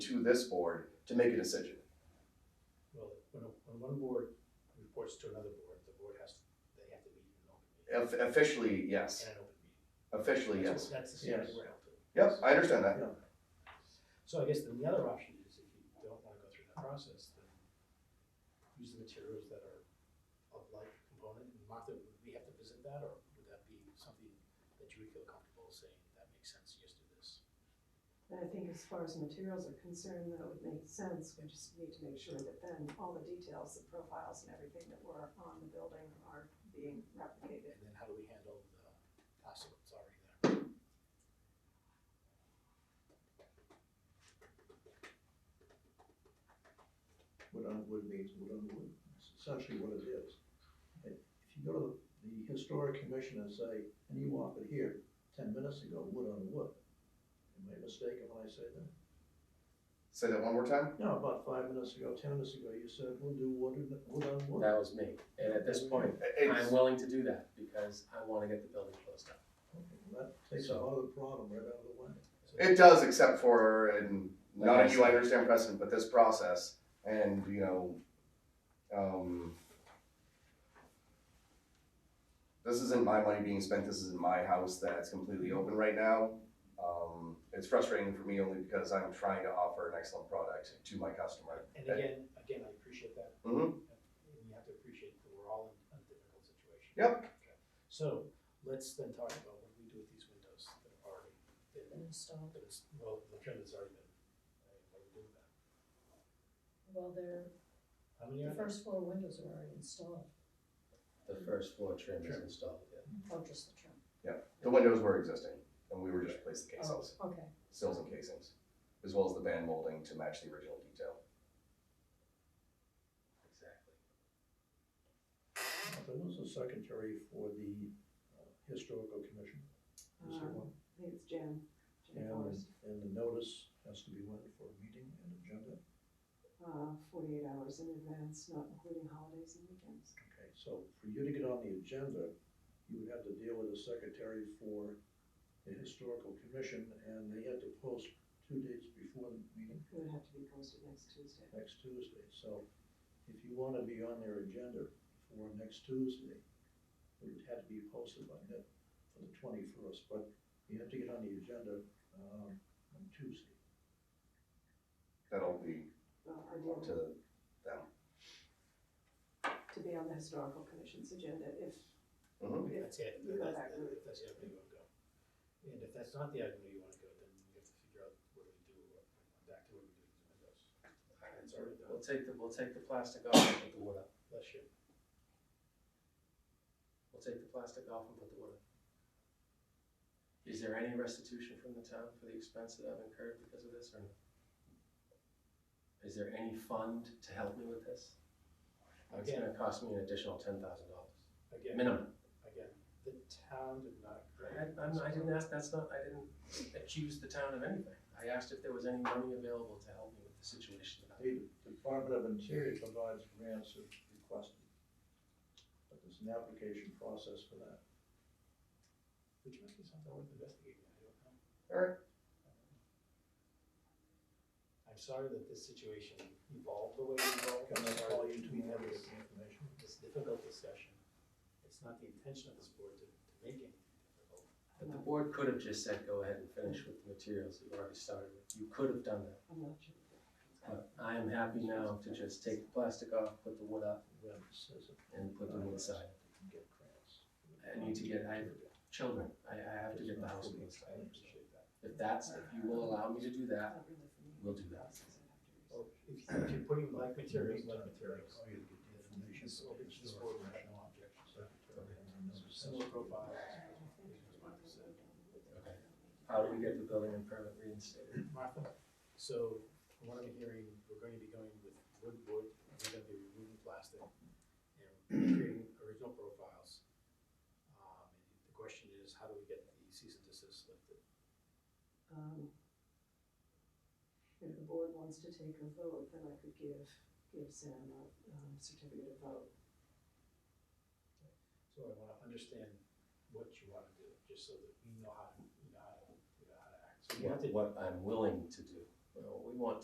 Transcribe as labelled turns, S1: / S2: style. S1: to this board to make a decision.
S2: Well, when, a- when one board reports to another board, the board has, they have to meet in an open meeting.
S1: Of- Officially, yes.
S2: In an open meeting.
S1: Officially,
S2: That's-
S1: yes.
S2: That's the standard
S3: Yes.
S2: we're held to.
S1: Yep, I understand that.
S2: So I guess then the other option is if you don't wanna go through that process, then use the materials that are of like component. And Martha, would we have to visit that, or would that be something that you would feel comfortable saying, that makes sense, yes, do this?
S4: And I think as far as materials are concerned, that would make sense, we just need to make sure that then all the details, the profiles and everything that were on the building are being replicated.
S2: And then how do we handle the plastic that's already there?
S3: wood on wood means wood on wood, It's essentially what it is. If if you go to the historic commission and say, and you offered here ten minutes ago, wood on wood, am I mistaken when I say that?
S1: Say that one more time.
S3: No, about five minutes ago, ten minutes ago, you said, we'll do wood, and- wood on wood.
S5: That was me, and at this point,
S1: It's-
S5: I'm willing to do that because I wanna get the building closed up.
S3: Okay, well, That takes a lot of the problem right out of the way.
S1: It does, except for, and not that you understand precedent, but this process, and, you know, um, this isn't my money being spent, this isn't my house that's completely open right now. Um, it's frustrating for me only because I'm trying to offer an excellent product to my customer.
S2: And again, again, I appreciate that,
S1: Mm-hmm,
S2: and you have to appreciate that we're all in a difficult situation.
S1: Yep.
S2: Okay. So, let's then talk about what we do with these windows that have already been,
S6: installed,
S2: that is, well, the trim has already been, uh, what do we do with that?
S6: well, their,
S2: How many
S6: the
S2: are there?
S6: first floor windows are already installed,
S5: The first floor trim is installed, yeah.
S6: oh, just the trim,
S1: the windows were existing, and we were just replacing the
S6: oh,
S1: casings,
S6: okay,
S1: sills and casings, as well as the band molding to match the original detail.
S5: Exactly.
S3: But who's the secretary for the uh, historical commission? Is there
S4: Um,
S3: one?
S4: I think it's Jan,
S3: And,
S4: Jan Forrest,
S3: and the notice has to be went for a meeting and agenda?
S4: uh, forty-eight hours in advance, not including holidays and weekends.
S3: Okay, so for you to get on the agenda, you would have to deal with the secretary for the historical commission, and they had to post two dates before the meeting
S4: It would have to be posted next Tuesday.
S3: next Tuesday. So if you want to be on their agenda for next Tuesday, it would have to be posted by the, for the twenty-first, but you have to get on the agenda, um, on Tuesday.
S1: That'll be
S4: Well,
S1: up to
S4: ideally,
S1: them.
S4: to be on the historical commission's agenda if,
S5: Uh-huh.
S1: Mhm.
S2: If that's it,
S4: You
S2: then
S4: go
S2: that's,
S4: back.
S2: if that's the avenue you wanna go. And if that's not the avenue you wanna go, then we have to figure out what do we do, what, back to what we do with the windows. It's already
S5: We'll
S2: done,
S5: take the, we'll take the plastic off and put the wood up.
S2: bless you.
S5: We'll take the plastic off and put the wood up. Is there any restitution from the town for the expense that I've incurred because of this or no? Is there any fund to help me with this? It's
S2: Again.
S5: gonna cost me an additional ten thousand dollars,
S2: Again,
S5: minimum.
S2: again, the town did not.
S5: I, I'm, I didn't ask, that's not, I didn't accuse the town of anything. I asked if there was any money available to help me with the situation that I'm in.
S3: The Department of Interior provides grants if requested, but there's an application process for that.
S2: Which might be something worth investigating, I don't know. Um,
S1: Alright.
S2: I'm sorry that this situation evolved the way it evolved.
S3: Can
S2: I'm
S3: I
S2: sorry
S3: call
S2: that
S3: you
S2: we
S3: tomorrow
S2: had
S3: to get
S2: this-
S3: the information?
S2: It's a difficult discussion. It's not the intention of this board to, to make anything difficult.
S5: But the board could have just said, go ahead and finish with the materials that you already started with. You could have done that.
S4: I'm not sure.
S5: But I am happy now to just take the plastic off, put the wood up,
S3: Web says it.
S5: and put the wood side.
S3: You can get grants.
S5: I need to get, I have children, I, I have to get the house closed.
S2: I appreciate that.
S5: If that's, if you will allow me to do that,
S4: Not really for me.
S5: we'll do that. Oh,
S4: Process
S2: Well, if
S4: I'd have to research.
S2: if you're putting like materials, like materials.
S3: Oh, you get the information.
S2: This will be just for rational objections.
S3: Secretary, and then it's-
S2: Similar profiles.
S5: Okay. How do we get the building and permit reinstated?
S2: Martha, so from what I'm hearing, we're going to be going with wood, wood, and we're gonna be removing plastic and creating original profiles. Um, The question is, how do we get the cease and desist lifted?
S4: Um, If the board wants to take a vote, then I could give, give Sam a um, certificate of vote.
S2: So I wanna understand what you wanna do, just so that we know how to, we know how to, we know how to act. So we have to
S5: What, what I'm willing to do. Well, we want